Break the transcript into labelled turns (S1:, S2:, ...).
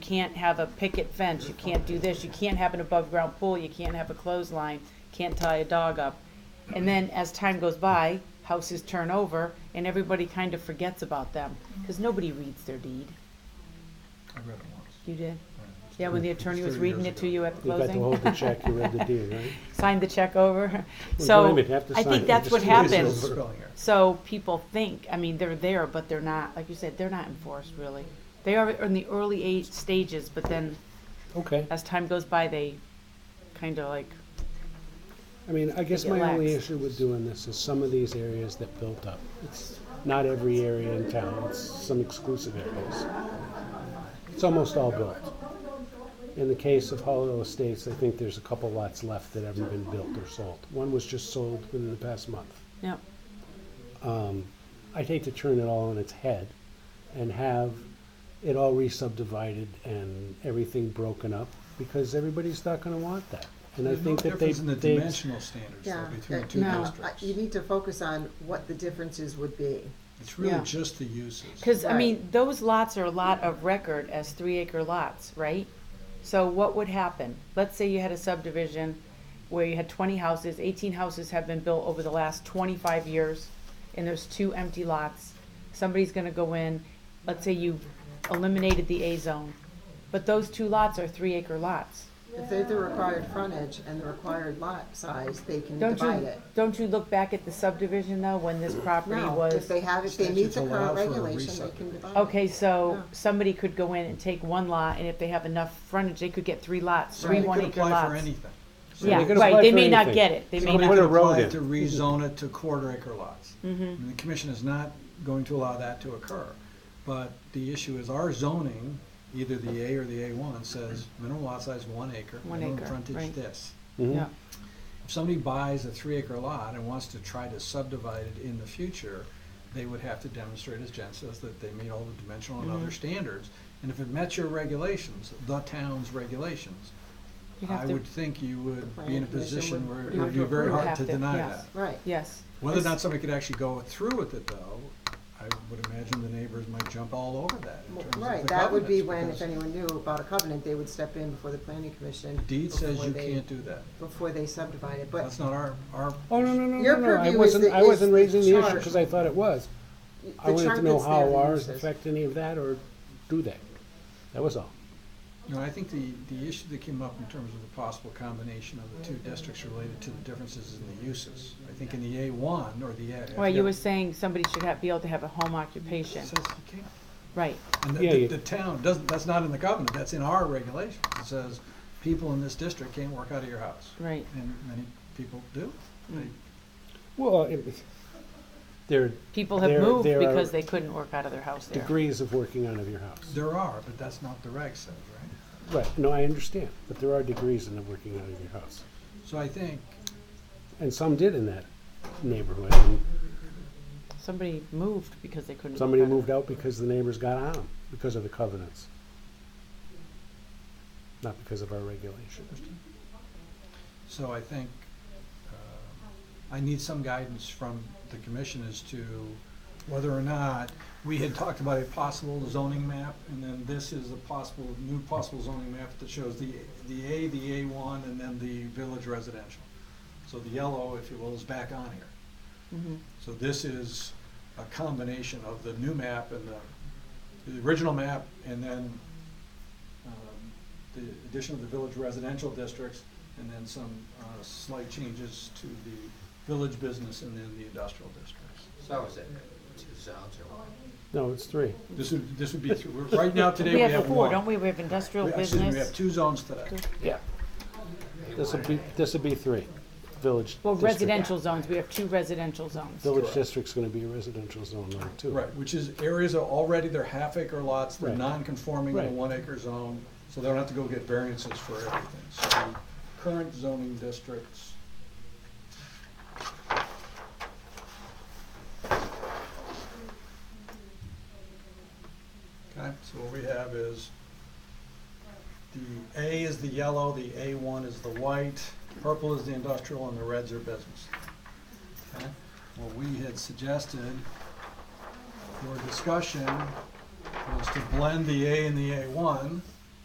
S1: can't have a picket fence, you can't do this, you can't have an above-ground pool, you can't have a clothesline, can't tie a dog up. And then as time goes by, houses turn over and everybody kind of forgets about them, because nobody reads their deed.
S2: I read it once.
S1: You did? Yeah, when the attorney was
S2: Thirty
S1: reading
S2: years
S1: it to
S2: ago.
S1: you at the
S3: You got to
S1: closing?
S3: hold the check, you read the deed, right?
S1: Sign the check over.
S3: Well,
S1: So,
S3: don't even have to
S1: I
S3: sign
S1: think
S3: it,
S1: that's
S3: just
S1: what
S3: do it yourself.
S1: happens.
S2: Spelling error.
S1: So people think, I mean, they're there, but they're not, like you said, they're not enforced really. They are in the early age stages, but then
S3: Okay,
S1: as time goes by, they kind of like,
S3: I mean, I guess
S1: Think it
S3: my only
S1: lacks.
S3: issue with doing this is some of these areas that built up. It's not every area in town, it's some exclusive areas. It's almost all built. In the case of Hollow Estates, I think there's a couple lots left that haven't been built or sold. One was just sold within the past month.
S1: no,
S3: I'd hate to turn it all on its head and have it all re-subdivided and everything broken up because everybody's not gonna want that. And I
S2: There's no
S3: think that they,
S2: difference in the
S3: they,
S2: dimensional standards though,
S4: Yeah,
S2: between the
S4: that-
S2: two
S1: no.
S2: districts.
S4: I- You need to focus on what the differences would be.
S2: It's really
S1: Yeah.
S2: just the uses.
S1: because I
S4: Right.
S1: mean, those lots are a lot of record as three acre lots, right? So what would happen? Let's say you had a subdivision where you had twenty houses, eighteen houses have been built over the last twenty-five years, and there's two empty lots. Somebody's gonna go in, let's say you eliminated the A zone, but those two lots are three acre lots.
S4: If they're the required frontage and the required lot size, they can
S1: Don't
S4: divide
S1: you,
S4: it.
S1: don't you look back at the subdivision though, when this property
S4: No, if
S1: was?
S4: they have, if they meet
S2: Statutes
S4: the
S2: allow
S4: current
S2: for a
S4: regulation, they can divide it.
S1: Okay, so
S4: Yeah.
S1: somebody could go in and take one lot, and if they have enough frontage, they could get three lots, three
S2: They
S1: one
S2: could
S1: acre
S2: apply for
S1: lots.
S2: anything.
S1: Yeah,
S3: They could
S1: right,
S3: apply
S1: they
S3: for
S1: may not
S3: anything.
S1: get it, they may
S2: Somebody
S3: put
S1: not,
S2: could
S3: a road
S2: apply
S3: in.
S2: to rezone it to quarter acre lots.
S1: Mm-hmm.
S2: And the commission is not going to allow that to occur. But the issue is our zoning, either the A or the A one, says minimum lot size one acre,
S1: One
S2: minimum
S1: acre,
S2: frontage
S1: right.
S2: this.
S3: Mhm.
S1: yeah,
S2: If somebody buys a three acre lot and wants to try to subdivide it in the future, they would have to demonstrate, as Jen says, that they meet all the dimensional
S4: Mm-hmm.
S2: and other standards. And if it met your regulations, the town's regulations,
S1: you'd
S2: I
S1: have to,
S2: would think you would be in a
S4: planning commission
S2: position
S4: would-
S2: where it
S4: would
S2: would be
S4: have to
S2: very
S4: approve.
S2: hard
S1: Have
S2: to
S1: to,
S2: deny
S1: yes.
S2: that.
S4: Right.
S1: yes.
S2: Whether or
S1: It's-
S2: not somebody could actually go through with it though, I would imagine the neighbors might jump all over that in terms of the
S4: Right, that would be when,
S2: covenants,
S4: if anyone knew about a covenant, they would step in before the planning commission.
S2: because Deed says
S4: before
S2: you
S4: they-
S2: can't do that.
S4: Before they subdivide it, but
S2: That's not our, our.
S3: Oh, no, no, no,
S4: Your
S3: no, no, I
S4: purview is
S3: wasn't,
S4: the-
S3: I
S4: is
S3: wasn't
S4: the
S3: raising the issue
S4: chart.
S3: because I thought it was.
S4: the
S3: I wanted to
S4: chart
S3: know
S4: that's there,
S3: how
S4: the
S3: ours
S4: uses.
S3: affect any of that or do they? That was all.
S2: No, I think the, the issue that came up in terms of the possible combination of the two districts related to the differences in the uses. I think in the A one or the A.
S1: Well, you were saying somebody should have, be able to have a home occupation,
S2: Says you can't.
S1: right,
S2: And
S3: Yeah,
S2: the,
S3: you-
S2: the town doesn't, that's not in the covenant, that's in our regulations. It says, people in this district can't work out of your house.
S1: right,
S2: And many people do. They-
S3: Well, it- there are
S1: people have
S3: There-
S1: moved
S3: there are-
S1: because they couldn't work out of their house there.
S3: degrees of working out of your house.
S2: There are, but that's not the reg says, right?
S3: Right, no, I understand, but there are degrees in the working out of your house.
S2: So I think,
S3: And some did in that neighborhood and
S1: Somebody moved because they couldn't. work
S3: Somebody
S1: out of-
S3: moved out because the neighbors got on 'em because of the covenants. Not because of our regulation.
S2: so I think, uh, I need some guidance from the commission as to whether or not, we had talked about a possible zoning map, and then this is a possible, new possible zoning map that shows the, the A, the A one, and then the village residential. So the yellow, if you will, is back on here.
S1: Mhm.
S2: So this is a combination of the new map and the, the original map, and then um, the addition of the village residential districts, and then some uh, slight changes to the village business and then the industrial districts.
S5: So is it two zones or one?
S3: No, it's three.
S2: This would, this would be, three- we're- right now, today,
S1: We
S2: we
S1: have
S2: have
S1: four,
S2: one.
S1: don't we? We have industrial
S2: We- excuse me, We have
S1: business.
S2: two zones today.
S3: Yeah.
S5: They
S3: This would
S5: wanted
S3: be,
S5: it.
S3: this would be three. Village.
S1: Well,
S3: district.
S1: residential zones, we have two residential zones.
S3: Village district's gonna be a residential zone now too.
S2: Right, which is areas are already, they're half acre lots, they're
S3: Right.
S2: non-conforming in a
S3: Right.
S2: one acre zone, so they don't have to go get variances for everything. So the current zoning districts, okay, so what we have is the A is the yellow, the A one is the white, purple is the industrial, and the reds are business. Okay, what we had suggested your discussion was to blend the A and the A one